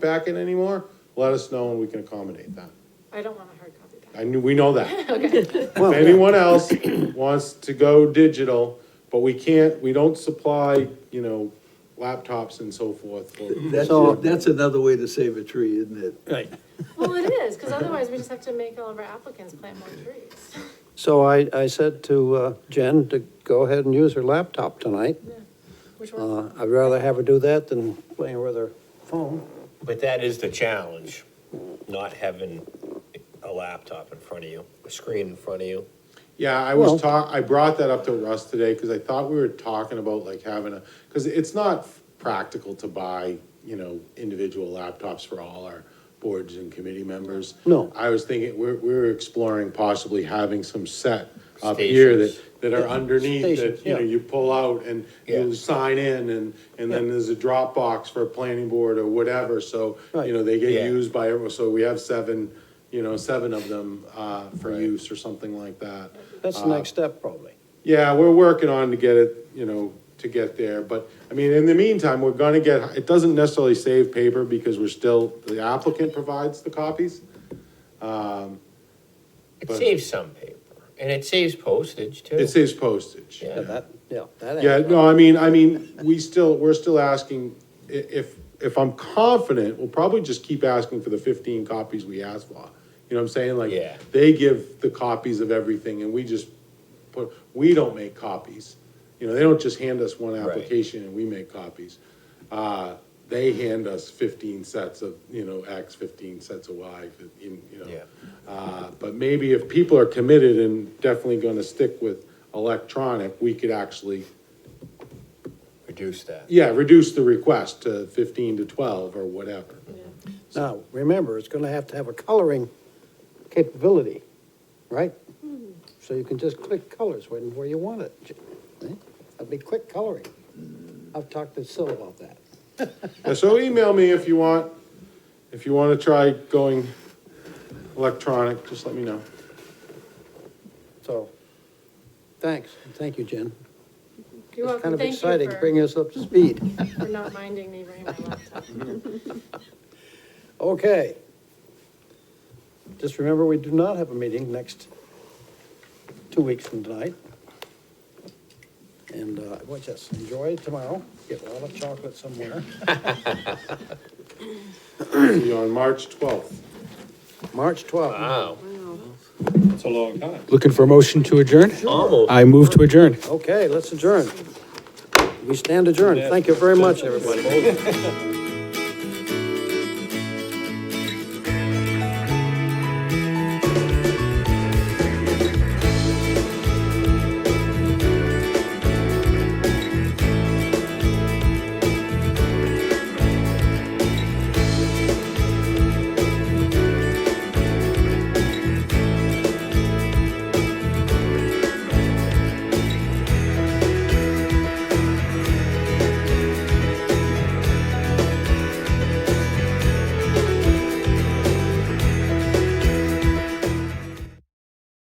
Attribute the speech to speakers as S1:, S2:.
S1: packet anymore, let us know and we can accommodate that.
S2: I don't want a hard copy back.
S1: I knew, we know that.
S2: Okay,
S1: If anyone else wants to go digital, but we can't, we don't supply, you know, laptops and so forth. for-
S3: That's,
S4: So-
S3: that's another way to save a tree, isn't it?
S2: well, it is, because otherwise we just have to make all of our applicants plant more trees.
S4: So I, I said to uh, Jen to go ahead and use her laptop tonight.
S2: Which one?
S4: Uh, I'd rather have her do that than playing with her phone.
S5: But that is the challenge, not having a laptop in front of you, a screen in front of you.
S1: Yeah, I
S4: Well-
S1: was talk, I brought that up to Russ today, cause I thought we were talking about like having a, cause it's not practical to buy, you know, individual laptops for all our boards and committee members.
S4: No.
S1: I was thinking, we're, we're exploring possibly having some set up here
S5: Stations.
S1: that, that are underneath,
S4: Stations,
S1: that, you know,
S4: yeah.
S1: you pull out and
S5: Yeah.
S1: you sign in and, and then there's a Dropbox for planning board or whatever, so,
S4: Right.
S1: you know, they get
S5: Yeah.
S1: used by everyone, so we have seven, you know, seven of them, uh, for use or something like that.
S4: That's the next step probably.
S1: Yeah, we're working on to get it, you know, to get there, but, I mean, in the meantime, we're gonna get, it doesn't necessarily save paper because we're still, the applicant provides the copies.
S5: It
S1: But-
S5: saves some paper, and it saves postage too.
S1: It saves postage.
S4: Yeah, that, yeah, that. adds
S1: Yeah,
S4: up.
S1: no, I mean, I mean, we still, we're still asking, i- if, if I'm confident, we'll probably just keep asking for the fifteen copies we asked for. You know what I'm saying? Like,
S5: Yeah.
S1: they give the copies of everything and we just put, we don't make copies. You know, they don't just hand us one application and we make copies. Uh, they hand us fifteen sets of, you know, X, fifteen sets of Y, you you know.
S5: Yeah.
S1: Uh, But maybe if people are committed and definitely gonna stick with electronic, we could actually,
S5: Reduce that.
S1: yeah, reduce the request to fifteen to twelve or whatever.
S4: Now, remember, it's gonna have to have a coloring capability, right?
S2: Hmm.
S4: So you can just click colors when, where you want it. J- eh? That'd be quick coloring.
S2: Hmm.
S4: I've talked to Sil about that.
S1: Yeah, So email me if you want, if you wanna try going electronic, just let me know.
S4: So, thanks. Thank you, Jen.
S2: You're
S4: It's
S2: welcome,
S4: kind of
S2: thank
S4: exciting,
S2: you
S4: bringing us up to speed.
S2: for, for not minding me bringing my laptop.
S4: Okay. Just remember, we do not have a meeting next two weeks from tonight. And, uh, well, just enjoy tomorrow, get a lot of chocolate somewhere.
S1: See you on March twelfth.
S4: March twelfth.
S5: Wow,
S1: It's a long time.
S6: Looking for a motion to adjourn?
S5: almost.
S6: I move to adjourn.
S4: Okay, let's adjourn. We stand adjourned. Thank you very much, everybody.